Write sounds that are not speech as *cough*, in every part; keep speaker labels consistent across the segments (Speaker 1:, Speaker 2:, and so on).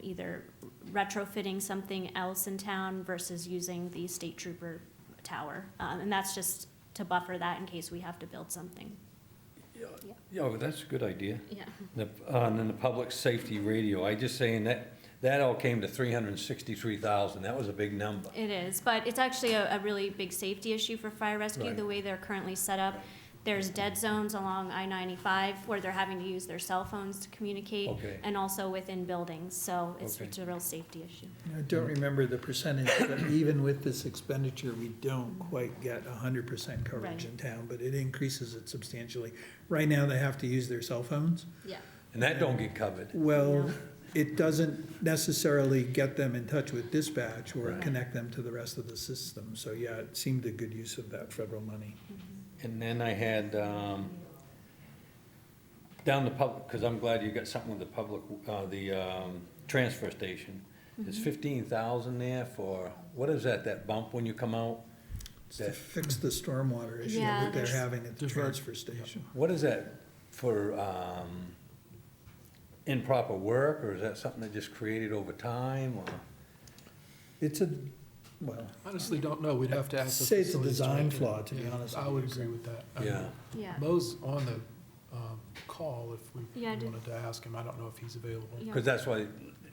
Speaker 1: either retrofitting something else in town versus using the state trooper tower. Um, And that's just to buffer that in case we have to build something.
Speaker 2: Yeah, well, that's a good idea.
Speaker 1: Yeah.
Speaker 2: The- uh, And then the public safety radio, I just saying that, that all came to three hundred and sixty-three thousand, that was a big number.
Speaker 1: It is, but it's actually a, a really big safety issue for fire rescue,
Speaker 2: Right.
Speaker 1: the way they're currently set up. There's dead zones along I ninety-five where they're having to use their cell phones to communicate.
Speaker 2: Okay.
Speaker 1: And also within buildings, so it's,
Speaker 2: Okay.
Speaker 1: it's a real safety issue.
Speaker 3: I don't remember the percentage, but even with this expenditure, we don't quite get hundred percent coverage in town, but it increases it substantially. Right now, they have to use their cell phones.
Speaker 1: Yeah.
Speaker 2: And that don't get covered.
Speaker 3: Well, it doesn't necessarily get them in touch with dispatch or
Speaker 2: Right.
Speaker 3: connect them to the rest of the system. So yeah, it seemed a good use of that federal money.
Speaker 2: And then I had, um, down the public, because I'm glad you got something with the public, uh, the, um, transfer station. It's fifteen thousand there for, what is that, that bump when you come out?
Speaker 3: It's To
Speaker 2: That-
Speaker 3: fix the stormwater issue
Speaker 1: Yeah,
Speaker 3: that they're
Speaker 1: there's-
Speaker 3: having at the
Speaker 4: Divert.
Speaker 3: transfer station.
Speaker 2: What is that for, um, improper work, or is that something that just created over time, or?
Speaker 3: It's a, well,
Speaker 4: Honestly, don't know. We'd have to ask. the
Speaker 3: Say it's a
Speaker 4: facilities
Speaker 3: design
Speaker 4: director.
Speaker 3: flaw, to be
Speaker 4: Yeah,
Speaker 3: honest
Speaker 4: I
Speaker 3: with
Speaker 4: would
Speaker 3: you.
Speaker 4: agree with that. I mean,
Speaker 2: Yeah,
Speaker 1: Yeah.
Speaker 4: Mo's on the um, call if we
Speaker 1: Yeah, I did-
Speaker 4: wanted to ask him. I don't know if he's available.
Speaker 1: Yeah.
Speaker 2: because that's why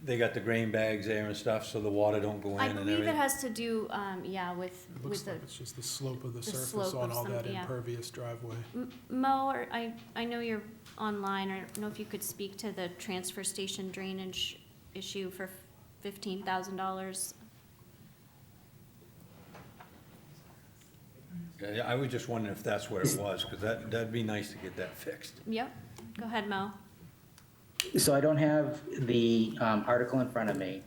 Speaker 2: they got the grain bags there and stuff, so the water don't go in
Speaker 1: I
Speaker 2: and everything.
Speaker 1: believe it has to do, um, yeah, with,
Speaker 4: It
Speaker 1: with
Speaker 4: looks
Speaker 1: the,
Speaker 4: like it's just the slope of the surface
Speaker 1: slope
Speaker 4: on
Speaker 1: of
Speaker 4: all that
Speaker 1: something, yeah.
Speaker 4: impervious driveway.
Speaker 1: M- Mo, or I, I know you're online, I don't know if you could speak to the transfer station drainage issue for fifteen thousand dollars.
Speaker 2: Yeah, I was just wondering if that's where it was, because that, that'd be nice to get that fixed.
Speaker 1: Yep, go ahead, Mo.
Speaker 5: So I don't have the um, article in front of me,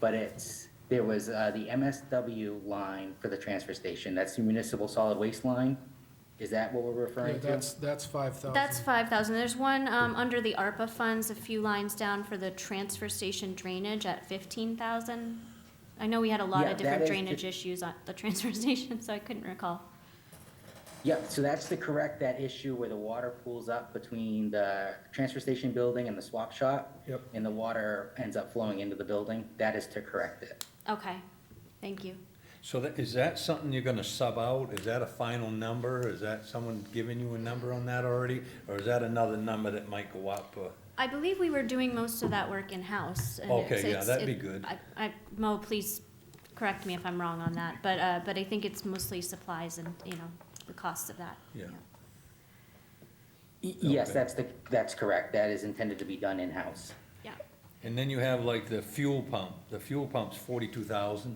Speaker 5: but it's, there was uh, the MSW line for the transfer station. That's the municipal solid waste line. Is that what we're
Speaker 4: Yeah,
Speaker 5: referring to?
Speaker 4: that's, that's five thousand.
Speaker 1: That's five thousand, there's one, um, under the ARPA funds, a few lines down for the transfer station drainage at fifteen thousand. I know we had a lot
Speaker 5: Yeah,
Speaker 1: of
Speaker 5: that
Speaker 1: different
Speaker 5: is the-
Speaker 1: drainage issues at the *laughs* transfer station, so I couldn't recall.
Speaker 5: Yep, so that's to correct that issue where the water pools up between the transfer station building and the swap shop.
Speaker 3: Yep.
Speaker 5: And the water ends up flowing into the building. That is to correct it.
Speaker 1: Okay, thank you.
Speaker 2: So that, is that something you're gonna sub out? Is that a final number? Is that someone giving you a number on that already? Or is that another number that might go up? uh,
Speaker 1: I believe we were doing most of that work in-house. and
Speaker 2: Okay,
Speaker 1: it's-
Speaker 2: yeah,
Speaker 1: it's-
Speaker 2: that'd be
Speaker 1: it-
Speaker 2: good.
Speaker 1: I, I, Mo, please correct me if I'm wrong on that, but, uh, but I think it's mostly supplies and, you know, the cost of that.
Speaker 2: Yeah.
Speaker 5: Y- Yes,
Speaker 2: Okay.
Speaker 5: that's the, that's correct. That is intended to be done in-house.
Speaker 1: Yeah,
Speaker 2: And then you have like the fuel pump. The fuel pump's forty-two thousand.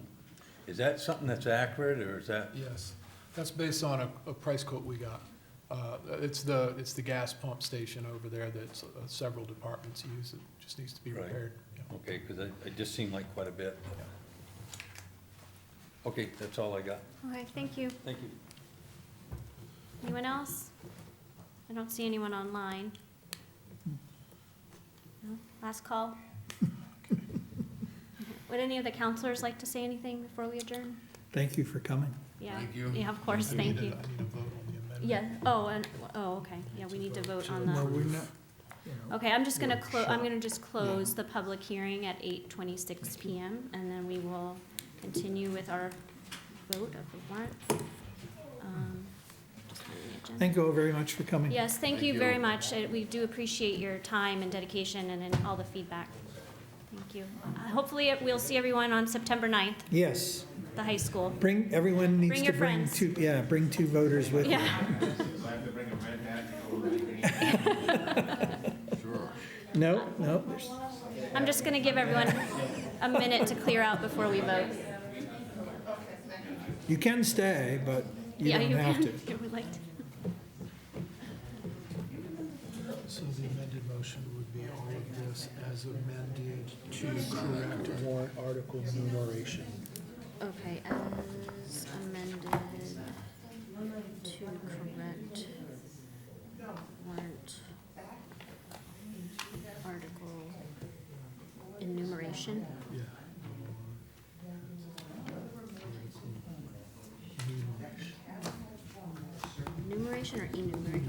Speaker 2: Is that something that's accurate, or is that?
Speaker 4: Yes, that's based on a, a price quote we got. Uh, It's the, it's the gas pump station over there that uh, several departments use, it just needs to be
Speaker 2: Right.
Speaker 4: repaired. Yeah.
Speaker 2: Okay, because it, it just seemed like quite a bit. Okay, that's all I got.
Speaker 1: okay, thank you.
Speaker 2: Thank you.
Speaker 1: Anyone else? I don't see anyone online. No? Last call? Would any of the counselors like to say anything before we adjourn?
Speaker 3: Thank you for coming.
Speaker 1: Yeah.
Speaker 4: Thank you.
Speaker 1: Yeah, of course,
Speaker 4: I do need
Speaker 1: thank
Speaker 4: a-
Speaker 1: you.
Speaker 4: I need a vote on the amendment.
Speaker 1: Yeah, oh, and, oh, okay, yeah, we need to vote on
Speaker 3: No,
Speaker 1: the.
Speaker 3: we're not, you know.
Speaker 1: Okay, I'm just gonna
Speaker 3: Yeah,
Speaker 1: close, I'm
Speaker 3: sure.
Speaker 1: gonna just close the public hearing at eight twenty-six PM, and then we will continue with our vote of the warrant. Um, just on the agenda.
Speaker 3: Thank you all very much for coming.
Speaker 1: Yes, thank you very much. Uh, We do appreciate your time and dedication and and all the feedback. Thank you. Uh, Hopefully, uh, we'll see everyone on September 9th,
Speaker 3: Yes,
Speaker 1: the high school. *laughs*
Speaker 3: bring, everyone needs
Speaker 1: Bring
Speaker 3: to
Speaker 1: your
Speaker 3: bring
Speaker 1: friends.
Speaker 3: two, yeah, bring two voters with you.
Speaker 1: Yeah.
Speaker 3: No, no, there's-
Speaker 1: I'm just gonna give everyone a minute to clear out before we vote.
Speaker 3: you can stay, but you
Speaker 1: Yeah,
Speaker 3: don't have
Speaker 1: can,
Speaker 3: to.
Speaker 1: *laughs* if you would like to.
Speaker 4: So the amended motion would be all of this as amended to correct warrant article numeration.
Speaker 1: Okay, as amended to correct warrant article enumeration.
Speaker 4: Yeah. Numeration.
Speaker 1: Enumeration or enumeration?